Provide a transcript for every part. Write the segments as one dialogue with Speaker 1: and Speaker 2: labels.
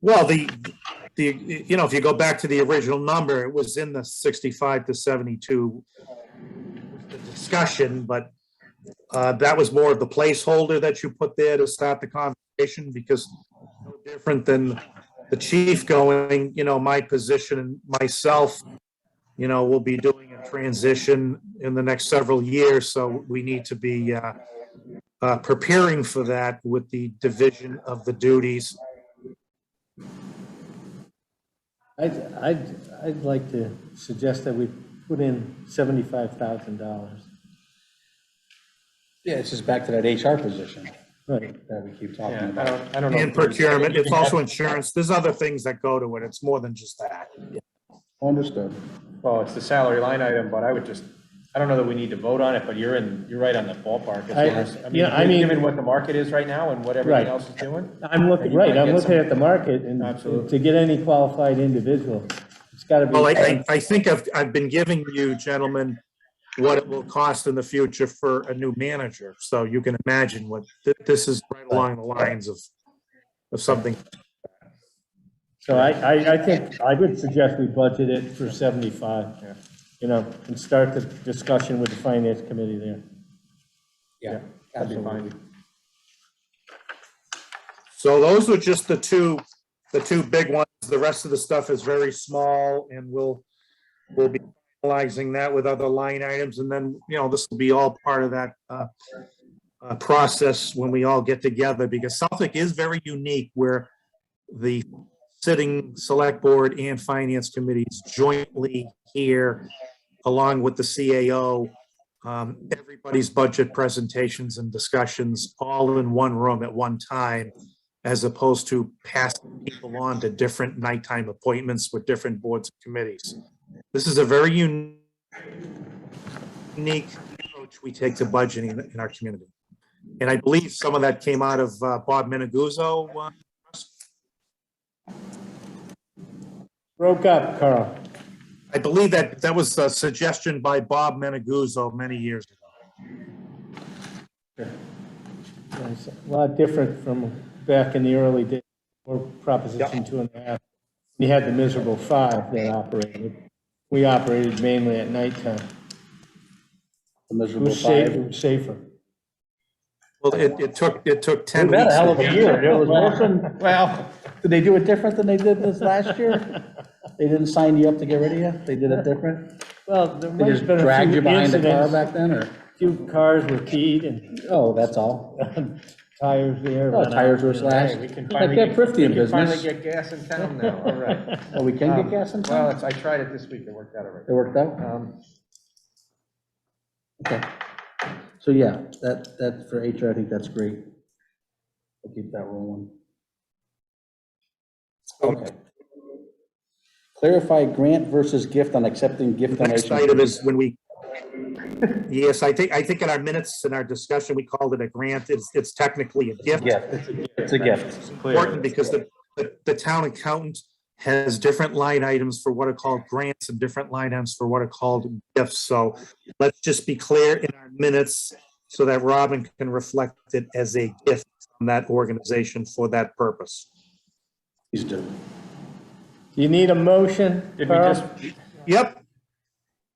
Speaker 1: Well, the, the, you know, if you go back to the original number, it was in the sixty-five to seventy-two discussion, but uh, that was more of the placeholder that you put there to start the conversation because no different than the chief going, you know, my position and myself, you know, will be doing a transition in the next several years, so we need to be uh, uh, preparing for that with the division of the duties
Speaker 2: I'd, I'd, I'd like to suggest that we put in seventy-five thousand dollars.
Speaker 3: Yeah, it's just back to that HR position
Speaker 2: Right,
Speaker 3: that we keep
Speaker 4: Yeah,
Speaker 3: talking
Speaker 4: I
Speaker 3: about.
Speaker 4: don't, I don't know.
Speaker 1: And procurement, it's also insurance, there's other things that go to it, it's more than just that.
Speaker 3: Understood.
Speaker 4: Well, it's the salary line item, but I would just, I don't know that we need to vote on it, but you're in, you're right on the ballpark. as
Speaker 2: I-
Speaker 4: far as-
Speaker 2: yeah, I mean-
Speaker 4: Given what the market is right now and what
Speaker 2: Right.
Speaker 4: everything else is doing.
Speaker 2: I'm looking,
Speaker 4: You
Speaker 2: right,
Speaker 4: might
Speaker 2: I'm
Speaker 4: get
Speaker 2: looking
Speaker 4: some-
Speaker 2: at the market and
Speaker 4: Absolutely.
Speaker 2: to get any qualified individual, it's gotta be.
Speaker 1: Well, I- I, I think I've, I've been giving you gentlemen what it will cost in the future for a new manager, so you can imagine what, th- this is right along the lines of, of something.
Speaker 2: So I, I, I think, I would suggest we budget it for seventy-five, you know, and start the discussion with the finance committee there.
Speaker 3: Yeah,
Speaker 4: That'd be fine.
Speaker 3: absolutely.
Speaker 1: So those are just the two, the two big ones, the rest of the stuff is very small, and we'll, we'll be analyzing that with other line items, and then, you know, this will be all part of that, uh, uh, process when we all get together, because Suffolk is very unique where the sitting select board and finance committees jointly here, along with the CAO, um, everybody's budget presentations and discussions all in one room at one time, as opposed to passing people on to different nighttime appointments with different boards and committees. This is a very un- unique approach we take to budgeting in our community. And I believe some of that came out of uh, Bob Meneguzzo. uh,
Speaker 2: Broke up, Carl.
Speaker 1: I believe that, that was a suggestion by Bob Meneguzzo many years ago.
Speaker 2: It's A lot different from back in the early days, or Proposition Two and a Half. You had the miserable five that operated. We operated mainly at nighttime.
Speaker 3: The
Speaker 2: It
Speaker 3: miserable
Speaker 2: was safe-
Speaker 3: five.
Speaker 2: it was safer.
Speaker 1: Well, it, it took, it took 10
Speaker 3: We've
Speaker 1: weeks.
Speaker 3: had a
Speaker 1: to
Speaker 3: hell of a year. There was Wilson.
Speaker 4: Well,
Speaker 3: Did they do it different than they did this last year? They didn't sign you up to get rid of you? They did it different?
Speaker 2: Well, there
Speaker 3: They
Speaker 2: might
Speaker 3: just
Speaker 2: have been a
Speaker 3: dragged you
Speaker 2: few
Speaker 3: behind the car
Speaker 2: incidents.
Speaker 3: back then, or?
Speaker 2: Few cars were keyed and
Speaker 3: Oh, that's all.
Speaker 2: tires there. uh,
Speaker 3: Oh, Tires were slashed.
Speaker 4: hey, we can
Speaker 3: Like
Speaker 4: finally.
Speaker 3: that Prifty in
Speaker 4: we can Finally
Speaker 3: business.
Speaker 4: get gas in town now, all right.
Speaker 3: Oh, we can
Speaker 4: Um,
Speaker 3: get gas in
Speaker 4: Well,
Speaker 3: town?
Speaker 4: it's- I tried it this week, it worked out all right.
Speaker 3: It worked out?
Speaker 4: Um,
Speaker 3: Okay. So yeah, that, that, for HR, I think that's great. I'll keep that rolling. Okay. Clarify grant versus gift on accepting gift
Speaker 1: Next
Speaker 3: donations.
Speaker 1: item is when we, yes, I think, I think in our minutes, in our discussion, we called it a grant. It's, it's technically a gift.
Speaker 3: Gift, it's a gift.
Speaker 4: it's
Speaker 1: Important
Speaker 4: clear.
Speaker 1: because the, the- the town accountant has different line items for what are called grants and different line items for what are called gifts. So let's just be clear in our minutes so that Robin can reflect it as a gift from that organization for that purpose.
Speaker 3: Please do.
Speaker 2: You need a motion,
Speaker 4: Did we
Speaker 2: Carl?
Speaker 4: just,
Speaker 1: Yep,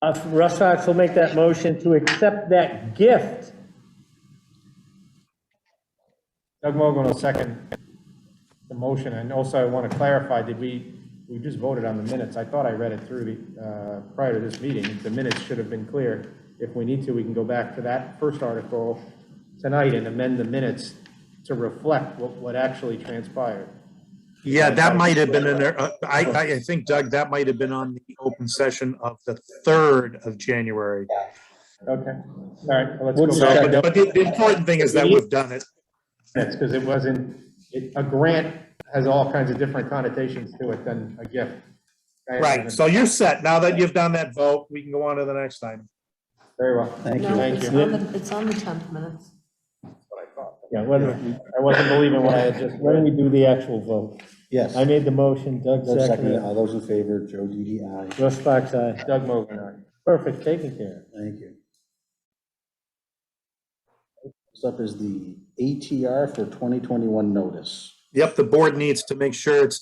Speaker 2: Uh, Russ Fox will make that motion to accept that gift.
Speaker 4: Doug Mogul will second the motion, and also I want to clarify, did we, we just voted on the minutes, I thought I read it through the, uh, prior to this meeting, the minutes should have been clear. If we need to, we can go back to that first article tonight and amend the minutes to reflect what, what actually transpired.
Speaker 1: yeah, that might have been in there. Uh, I, I, I think Doug, that might have been on the open session of the third of January.
Speaker 4: Okay, all right, well, let's go
Speaker 3: What's
Speaker 4: back.
Speaker 1: So,
Speaker 3: that?
Speaker 1: but but the the important thing is that we've done it.
Speaker 4: That's because it wasn't, it- a grant has all kinds of different connotations to it than a gift.
Speaker 1: Right, so you're set. Now that you've done that vote, we can go on to the next item.
Speaker 4: Very well.
Speaker 3: Thank
Speaker 5: No,
Speaker 4: Thank
Speaker 5: it's
Speaker 4: you.
Speaker 5: on the, it's on the 10th minutes.
Speaker 2: Yeah, why don't,
Speaker 4: I wasn't believing what I had just
Speaker 2: why don't we do the actual vote?
Speaker 3: Yes.
Speaker 2: I made the motion, Doug
Speaker 3: Doug seconded it.
Speaker 2: seconded it.
Speaker 3: All those in favor, Joe Didi, aye.
Speaker 2: Russ Fox, aye.
Speaker 4: Doug Mogul, aye.
Speaker 2: Perfect, taken care of.
Speaker 3: Thank you. Next up is the ATR for 2021 notice.
Speaker 1: Yep, the board needs to make sure it's